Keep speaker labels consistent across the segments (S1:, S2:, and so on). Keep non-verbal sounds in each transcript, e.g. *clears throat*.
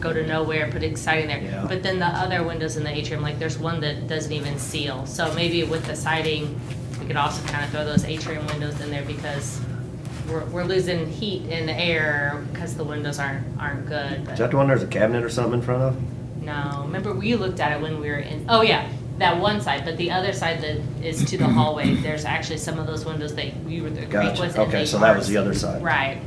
S1: go to nowhere and put a sign in there.
S2: Yeah.
S1: But then the other windows in the atrium, like there's one that doesn't even seal. So maybe with the siding, we could also kind of throw those atrium windows in there because we're, we're losing heat in the air because the windows aren't, aren't good.
S2: Is
S1: But
S2: that the one there's a cabinet or something in front of?
S1: No, remember we looked at it when we were in, oh yeah, that one side, but the other side that is to the
S2: *clears throat*
S1: hallway, there's actually some of those windows that we were, the creek
S2: Gotcha.
S1: was in.
S2: Okay,
S1: they
S2: so that was
S1: are-
S2: the other side.
S1: Right.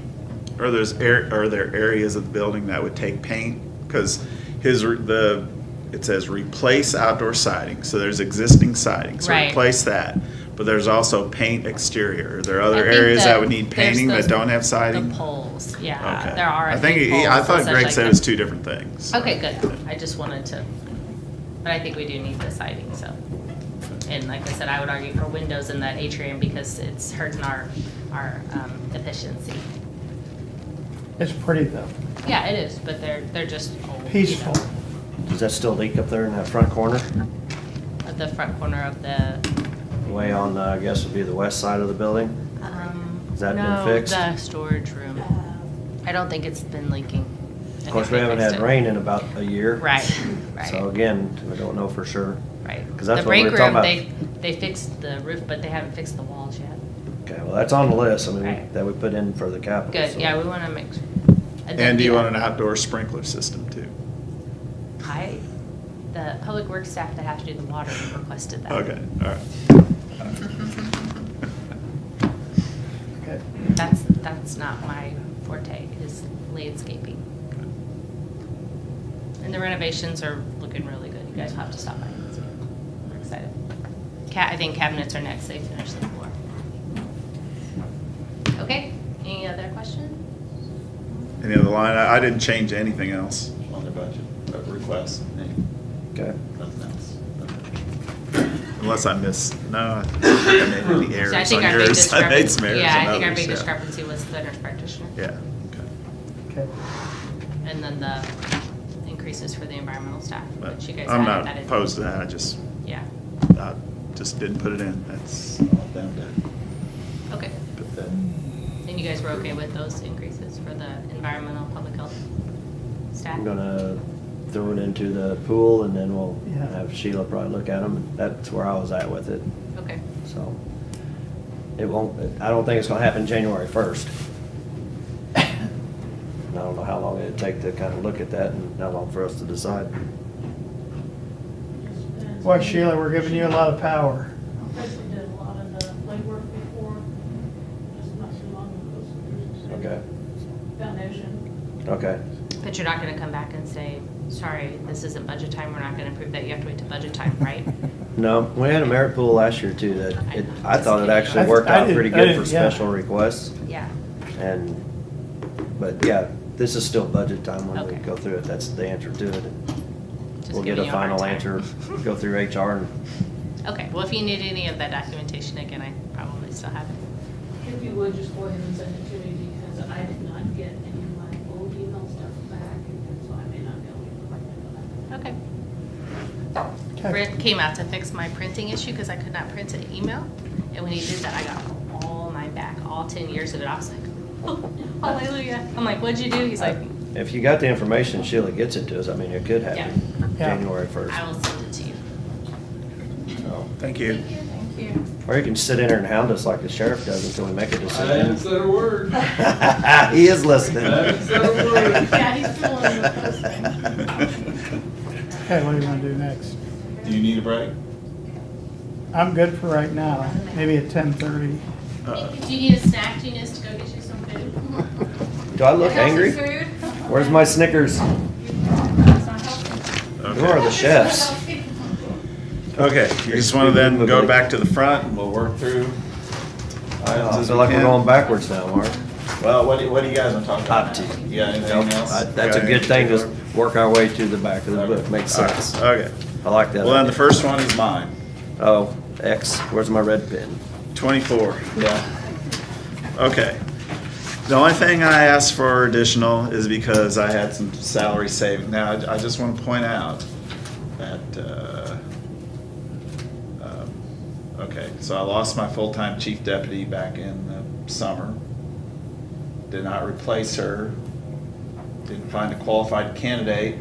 S3: Are there's air, are there areas of the building that would take paint? Because his, re- the, it says replace outdoor siding, so there's existing siding, so
S1: Right.
S3: replace that. But there's also paint exterior. Are there
S1: I
S3: other
S1: think
S3: areas
S1: the-
S3: that would need
S1: there's
S3: painting
S1: those-
S3: that don't have siding?
S1: The poles, yeah,
S3: Okay.
S1: there are.
S3: I
S1: a
S3: think,
S1: few
S3: he-
S1: poles
S3: I
S1: and
S3: thought
S1: such
S3: Greg
S1: like
S3: said it
S1: that.
S3: was two different things.
S1: Okay, good, I just wanted to, but I think we do need the siding, so. And like I said, I would argue for windows in that atrium because it's hurting our, our um, efficiency.
S4: It's pretty though,
S1: Yeah, it is, but they're, they're just old. you
S4: peaceful.
S1: know,
S2: Does that still leak up there in that front corner?
S1: At the front corner of the,
S2: Way on, the- I guess would be the west side of the building?
S1: um.
S2: Has that been
S1: no,
S2: fixed?
S1: The storage room. I don't think it's been leaking. I
S2: Of course,
S1: think
S2: we
S1: they
S2: haven't
S1: fixed
S2: had
S1: it.
S2: rain in about a year.
S1: Right,
S2: So
S1: right,
S2: again, we don't know for sure.
S1: right.
S2: 'cause that's
S1: The
S2: what we were
S1: break room,
S2: talking
S1: they, they fixed the roof, but they haven't fixed the walls yet.
S2: Okay, well, that's on the list, I mean,
S1: Right.
S2: that we put in for the capital.
S1: Good,
S2: so-
S1: yeah, we wanna make. sure.
S3: And do you want an outdoor sprinkler system too?
S1: I, the public works staff that have to do the water requested that.
S3: Okay, all right.
S4: Okay.
S1: That's, that's not my forte, is landscaping. And the renovations are looking really good, you guys will have to stop by and see. We're excited. Ca, I think cabinets are next, they finish the floor. Okay, any other questions?
S3: Any other line, I I didn't change anything else on the budget, uh, request, any-
S2: Okay,
S3: nothing else. Unless I missed, no, I think I
S1: So
S3: made any
S1: I
S3: errors
S1: think
S3: on
S1: our big
S3: yours. *laughs* I made
S1: discrepan-
S3: some errors
S1: Yeah,
S3: on
S1: I think our big
S3: others, yeah.
S1: discrepancy was the nurse practitioner.
S3: Yeah, okay.
S4: Okay.
S1: And then the increases for the environmental staff,
S3: But
S1: which you guys
S3: I'm
S1: added that
S3: not
S1: in.
S3: opposed to that, I just,
S1: Yeah,
S3: I just didn't put it in, that's all them to
S1: okay.
S3: put that.
S1: And you guys were okay with those increases for the environmental, public health staff?
S2: I'm gonna throw it into the pool and then we'll
S4: Yeah.
S2: have Sheila probably look at them. That's where I was at with it,
S1: Okay,
S2: so. It won't, I don't think it's gonna happen January first. And I don't know how long it'd take to kind of look at that and how long for us to decide.
S4: Well, Sheila, we're giving you a lot of power.
S5: Basically did a lot of the legwork before, just not too long ago. so there's a
S2: Okay,
S5: Foundation.
S2: okay,
S1: but you're not gonna come back and say, sorry, this isn't budget time, we're not gonna approve that, you have to wait to budget time,
S2: *laughs*
S1: right?
S2: no, we had a merit pool last year too that, it- I thought it actually worked
S4: I- I
S2: out
S4: did-
S2: pretty
S4: I
S2: good
S4: did,
S2: for
S4: yeah.
S2: special requests.
S1: Yeah,
S2: And, but yeah, this is still budget time when we
S1: Okay.
S2: go through it, that's the answer to it.
S1: Just
S2: We'll
S1: giving
S2: get a
S1: you a hard
S2: final
S1: time.
S2: answer, go through HR and,
S1: okay, well, if you need any of that documentation, again, I probably still have it.
S5: If you would, just go ahead and send it to me because I did not get any of my old email stuff back and so I may not be able to correct it on that.
S1: Okay.
S4: Okay.
S1: Brent came out to fix my printing issue because I could not print an email. And when he did that, I got all mine back, all ten years of it. I was like, oh,
S5: *laughs*
S1: hallelujah. I'm like, what'd you do? He's like,
S2: if you got the information, Sheila gets it to us, I mean, it could happen
S4: Yeah.
S2: January first.
S1: I will send it to you.
S3: Thank you.
S2: Or you can sit in there and hound us like the sheriff does until we make a
S6: I haven't
S2: decision.
S6: said a word.
S2: *laughs* He is listening.
S6: haven't said a word.
S5: *laughs* Yeah, he's still on the
S3: *laughs*
S4: Okay, what do you want to do next?
S3: Do you need a break?
S4: I'm good for right now, maybe at ten thirty.
S3: Uh,
S5: Do you need a snack? Do you need us to go get you some food?
S2: Do I look angry? Where's
S5: *laughs*
S2: my Snickers? You are the chefs. Oh,
S3: Okay, you just wanna then go back to the front and we'll work through items
S2: I
S3: as
S2: feel
S3: we
S2: like we're
S3: can.
S2: going backwards now, Mark.
S3: Well, what do, you- what do you guys wanna talk
S2: Up to you.
S3: You got anything
S2: I- That's a good thing, to work our way to the back of the book, makes
S3: All right,
S2: sense.
S3: Okay,
S2: I like that.
S3: well, then the
S2: idea.
S3: first one is mine,
S2: Oh, X, where's my red pen?
S3: twenty-four.
S2: Yeah.
S3: Okay. The only thing I asked for additional is because I had some salary saving. Now, I I just want to point out that, uh, um, okay, so I lost my full-time chief deputy back in the summer. Did not replace her. didn't find a qualified candidate,